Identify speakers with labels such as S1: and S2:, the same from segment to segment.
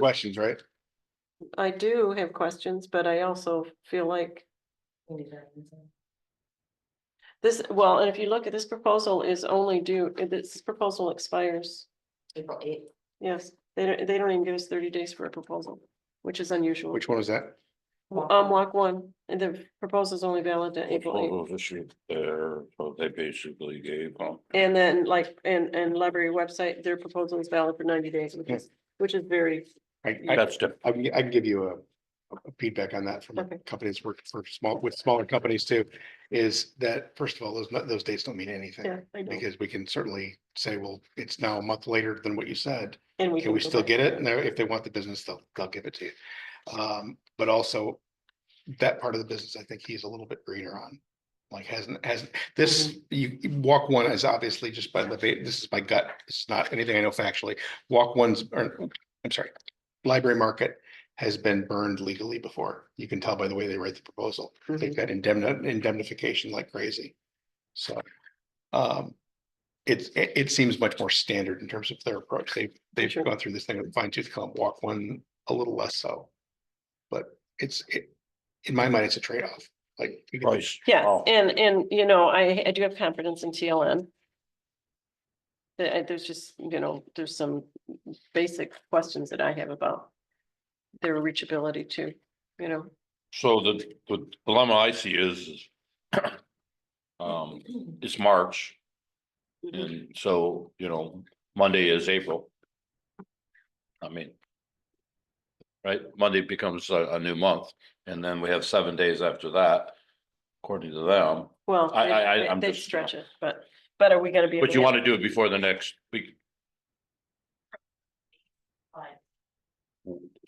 S1: questions, right?
S2: I do have questions, but I also feel like this, well, and if you look at this proposal is only due, uh, this proposal expires.
S3: April eighth.
S2: Yes, they don't, they don't even give us thirty days for a proposal, which is unusual.
S1: Which one is that?
S2: Um, walk one, and the proposal is only valid to April
S4: Proposals issued there, so they basically gave, um,
S2: eighth. And then like, and, and library website, their proposal is valid for ninety days, which is, which is very,
S1: I, I,
S4: that's different.
S1: I can, I can give you a a feedback on that from
S2: Okay.
S1: companies working for small, with smaller companies too, is that first of all, those, those dates don't mean
S2: yeah,
S1: anything.
S2: I know.
S1: Because we can certainly say, well, it's now a month later than what you said.
S2: And
S1: Can we
S2: go
S1: still
S2: back.
S1: get it? And they're- if they want the business, they'll, they'll give it to you. Um, but also that part of the business, I think he's a little bit greener on. Like hasn't, hasn't, this, you, you- walk one is obviously just by the, va- this is my gut. It's not anything I know factually. Walk ones, or, I'm sorry, library market has been burned legally before. You can tell by the way they write the proposal. They've got indemni- indemnification like crazy. So, um, it's, it, it seems much more standard in terms of their approach. They've, they've
S2: Sure.
S1: gone through this thing with fine tooth comb, walk one a little less so. But it's, it, in my mind, it's a trade-off, like. you can-
S4: price.
S2: Yeah,
S4: Oh,
S2: and, and, you know, I, I do have confidence in TLN. There- uh, There's just, you know, there's some basic questions that I have about their reachability too, you know,
S4: So the, the dilemma I see is, is, um, it's March. And so, you know, Monday is April. I mean. Right, Monday becomes a, a new month, and then we have seven days after that, according to them.
S2: well.
S4: I-
S2: they-
S4: I- I-
S2: they-
S4: I'm
S2: They
S4: just-
S2: stretch it, but, but are we gonna be?
S4: But you want to do it before the next week.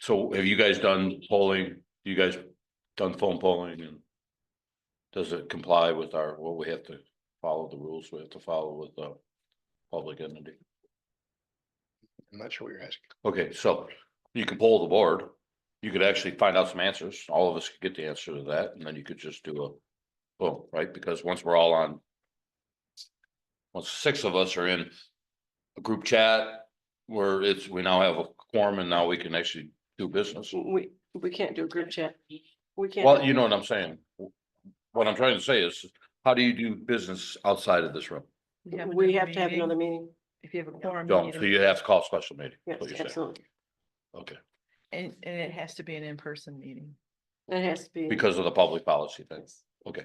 S4: So have you guys done polling? You guys done phone polling and? Does it comply with our, what we have to follow the rules we have to follow with the public entity?
S1: I'm not sure what you're asking.
S4: Okay, so you can poll the board. You could actually find out some answers. All of us could get the answer to that, and then you could just do a. Boom, right? Because once we're all on. Once six of us are in a group chat where it's, we now have a quorum and now we can actually do business.
S2: We, we can't do a group chat. We can't.
S4: Well, you know what I'm saying. What I'm trying to say is, how do you do business outside of this room?
S2: We have to have another meeting.
S3: If you have a quorum. you
S4: Don't,
S3: need
S4: so
S3: a-
S4: you have to call a special meeting. is
S2: Yes,
S4: what you're saying.
S2: absolutely.
S4: Okay,
S3: And, and it has to be an in-person meeting.
S2: It has to be.
S4: because of the public policy thing. Okay.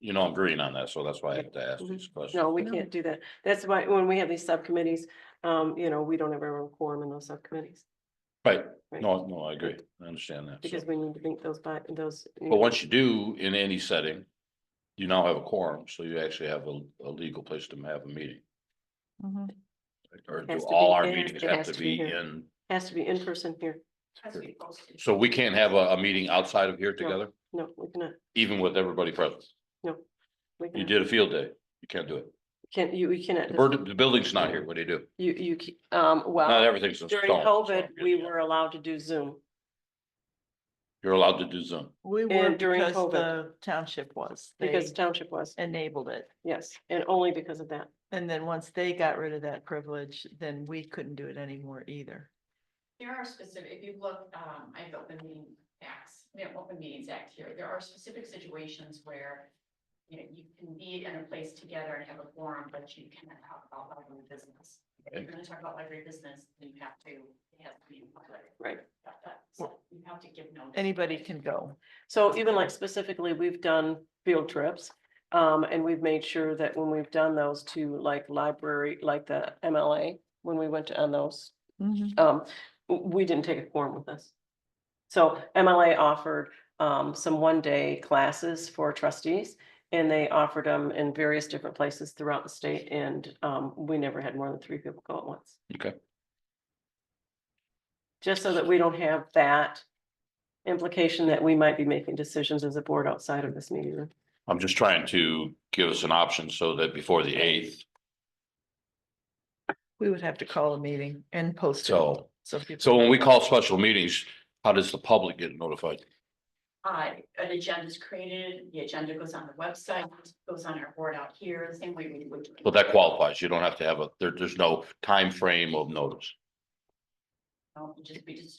S4: You know, I'm green on that, so that's why I have to ask these
S2: Mm-hmm.
S4: questions.
S2: No, we
S3: No.
S2: can't do that. That's why, when we have these subcommittees, um, you know, we don't ever have a quorum in those subcommittees.
S4: Right,
S2: Right.
S4: no, no, I agree. I understand that.
S2: Because
S4: so.
S2: we need to think those by, those. you know,
S4: But once you do, in any setting, you now have a quorum, so you actually have a, a legal place to have a meeting.
S3: Mm-hmm.
S4: Or do
S2: Has to be-
S4: all our
S2: it has-
S4: meetings
S2: it
S4: have
S2: has
S4: to
S2: to be
S4: be
S2: here.
S4: in,
S2: Has to be in person here.
S4: so we can't have a, a meeting outside of here together,
S2: No, we cannot,
S4: even with everybody present?
S2: we
S4: You
S2: cannot,
S4: did a field day, you can't do it.
S2: can't, you, we cannot,
S4: The bird, the building's not here, what do you do?
S2: you, you, c- um,
S4: Not
S2: well,
S4: everything's in
S2: during
S4: stone. so
S2: COVID,
S4: you're-
S2: we were allowed to do Zoom.
S4: You're allowed to do Zoom.
S3: We were
S2: And during
S3: because
S2: COVID.
S3: the township was,
S2: Because
S3: they
S2: township was,
S3: enabled it.
S2: yes, and only because of that.
S3: And then once they got rid of that privilege, then we couldn't do it anymore either.
S5: There are specific, if you look, um, I have open meeting acts, we have open meetings act here, there are specific situations where. You know, you can be in a place together and have a forum, but you cannot talk about library business. If you're gonna talk about library business, then you have to, it has to be in public.
S2: Right.
S5: About that, so you have to give notice.
S3: Anybody can go.
S2: So even like specifically, we've done field trips. Um, and we've made sure that when we've done those to like library, like the MLA, when we went to on those,
S3: Mm-hmm.
S2: um, w- we didn't take a quorum with us. So MLA offered, um, some one-day classes for trustees. And they offered them in various different places throughout the state and, um, we never had more than three people go at once.
S4: Okay.
S2: Just so that we don't have that implication that we might be making decisions as a board outside of this meeting room.
S4: I'm just trying to give us an option so that before the eighth,
S3: We would have to call a meeting and post it.
S4: so,
S3: So people.
S4: so when we call special meetings, how does the public get notified?
S5: Uh, an agenda is created, the agenda goes on the website, goes on our board out here, the same way we would. do it.
S4: Well, that qualifies. You don't have to have a, there, there's no time frame of notice.
S5: um, just, we just